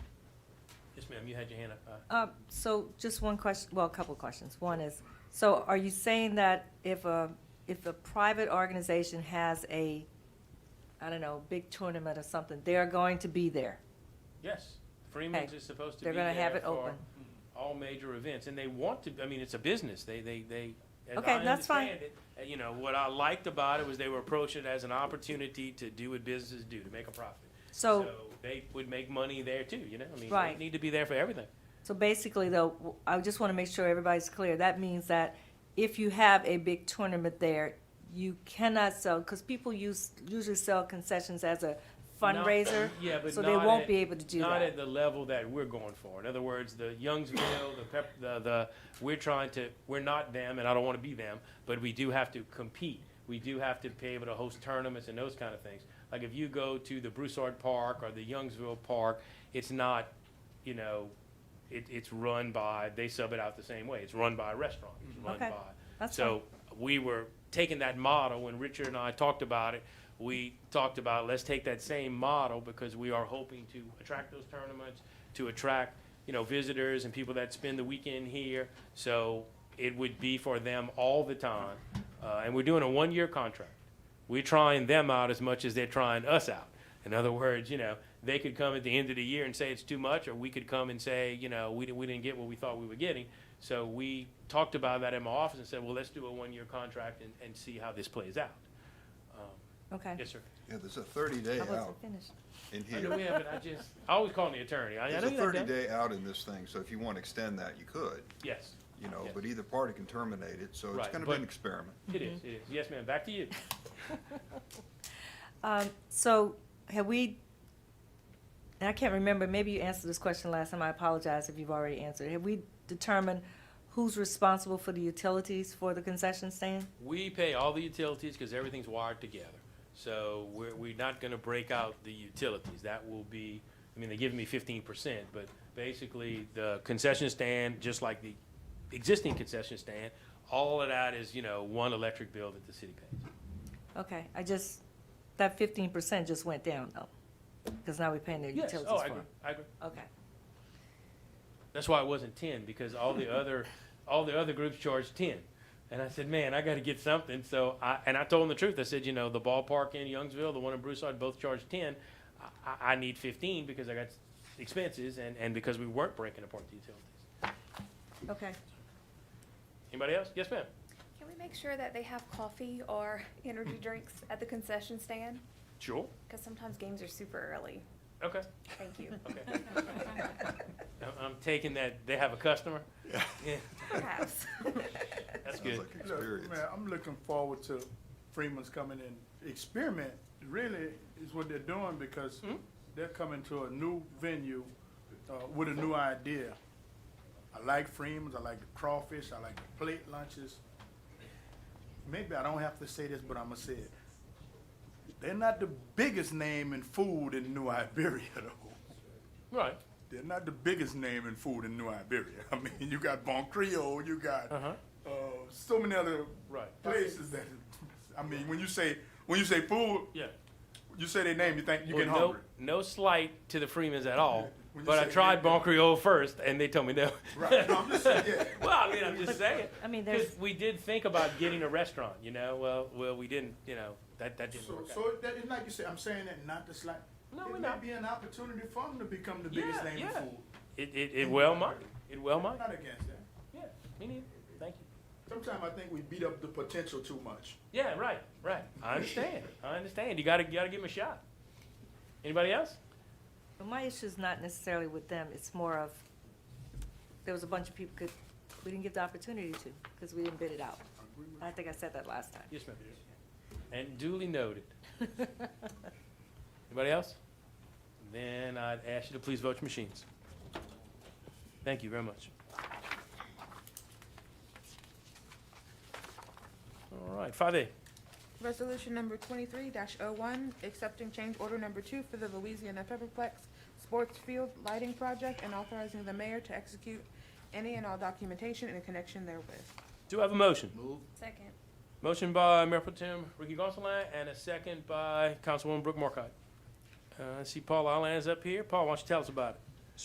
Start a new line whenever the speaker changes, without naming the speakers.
ma'am, you had your hand up. uh,
Uh, So just one question, well, a couple of questions. One is, so are you saying that if a, if a private organization has a, I don't know, big tournament or something, they're going to be there?
Yes, Freeman's
Okay.
is supposed to be
They're
there
going to have it
for
open?
all major events, and they want to, I mean, it's a business, they, they, they. as
Okay,
I
that's fine.
understand it, uh, You know, what I liked about it was they were approaching it as an opportunity to do what businesses do, to make a profit.
So,
They would make money there too, you know, I mean, they
Right.
need to be there for everything.
so basically though, w- I just want to make sure everybody's clear. That means that if you have a big tournament there, you cannot sell, because people use, usually sell concessions as a fundraiser,
Yeah, but
so they
not
won't
at-
be able to do
Not at
that.
the level that we're going for. In other words, the Youngsville, the pep, the, the, we're trying to, we're not them, and I don't want to be them, but we do have to compete. We do have to be able to host tournaments and those kind of things. Like if you go to the Broussard Park or the Youngsville Park, it's not, you know, it, it's run by, they sub it out the same way. It's run by a restaurant. It's run
Okay.
by
That's fine.
so we were taking that model, when Richard and I talked about it, we talked about, let's take that same model, because we are hoping to attract those tournaments, to attract, you know, visitors and people that spend the weekend here, so it would be for them all the time. Uh, and we're doing a one-year contract. We're trying them out as much as they're trying us out. In other words, you know, they could come at the end of the year and say it's too much, or we could come and say, you know, we, di- we didn't get what we thought we were getting. So we talked about that in my office and said, well, let's do a one-year contract and, and see how this plays out. Um,
Okay.
Yes, sir.
Yeah, there's a thirty-day
I
out
wasn't finished.
in
I
here.
know we haven't, I just, I always call the attorney. I- I
There's
know
a
you like that.
thirty-day out in this thing, so if you want to extend that, you could,
Yes,
you know,
Yeah.
but either party can terminate it, so it's
Right,
gonna be
but-
an experiment.
it is, it is. Yes, ma'am, back to you.
Um, so have we, and I can't remember, maybe you answered this question last time, I apologize if you've already answered. Have we determined who's responsible for the utilities for the concession stand?
We pay all the utilities because everything's wired together. So we're, we're not gonna break out the utilities. That will be, I mean, they give me fifteen percent, but basically the concession stand, just like the existing concession stand, all of that is, you know, one electric bill that the city pays.
Okay, I just, that fifteen percent just went down though, because now we're paying their
Yes,
utilities
oh,
for
I agree,
it.
I agree.
Okay,
That's why it wasn't ten, because all the other, all the other groups charged ten. And I said, man, I got to get something. So I, and I told them the truth. I said, you know, the ballpark in Youngsville, the one in Broussard, both charged ten. I- I, I need fifteen because I got expenses and, and because we weren't breaking apart the utilities.
okay.
Anybody else? Yes, ma'am.
Can we make sure that they have coffee or energy drinks at the concession stand?
Sure.
Because sometimes games are super early.
Okay.
Thank you.
Okay. I'm, I'm taking that. They have a customer.
Yeah.
Yeah,
Perhaps.
that's
Sounds
good.
like
Look,
experience.
Man, I'm looking forward to Freeman's coming in. Experiment really is what they're doing because
Mhm.
they're coming to a new venue uh, with a new idea. I like Freeman's, I like the crawfish, I like the plate lunches. Maybe I don't have to say this, but I'm gonna say it. They're not the biggest name in food in New Iberia though.
Right.
They're not the biggest name in food in New Iberia. I mean, you got Bon Creole, you got
Uh-huh.
uh, so many other
Right.
places that I mean, when you say when you say food,
Yeah.
you say their name, you think you
Well,
get
no,
hungry.
No slight to the Freemans at all,
When you
but I
say
tried
nigga.
Bon Creole first, and they told me no.
Right. No, I'm just saying, yeah.
well, I mean, I'm just saying.
I mean, there's,
Because we did think about getting a restaurant, you know. Well, well, we didn't, you know. That that didn't
So,
work
so that is like you said. I'm saying that not to slight.
No,
it
we're
may
not.
be an opportunity for them to become the biggest
Yeah,
name
yeah.
in food.
out. It it, it well might. It well
I'm
might.
not against that.
Yeah. Me neither. Thank you.
Sometimes I think we beat up the potential too much.
Yeah. Right. Right. I understand. I understand. You gotta you gotta give them a shot. Anybody else?
but my issue's not necessarily with them, it's more of, there was a bunch of people could, we didn't give the opportunity to, because we didn't bid it out. I think I said that last time.
Yes, ma'am. And duly noted. Anybody else? Then I'd ask you to please vote your machines. Thank you very much. All right, five A.
Resolution number twenty-three dash oh one, accepting change order number two for the Louisiana Pepperplex Sports Field Lighting Project and authorizing the mayor to execute any and all documentation in connection therewith.
Do I have a motion?
Second.
Motion by Mayor Pro Tem Ricky Gonsalas and a second by Councilwoman Brooke Markcott. Uh, I see Paul Allen is up here. Paul, why don't you tell us about it?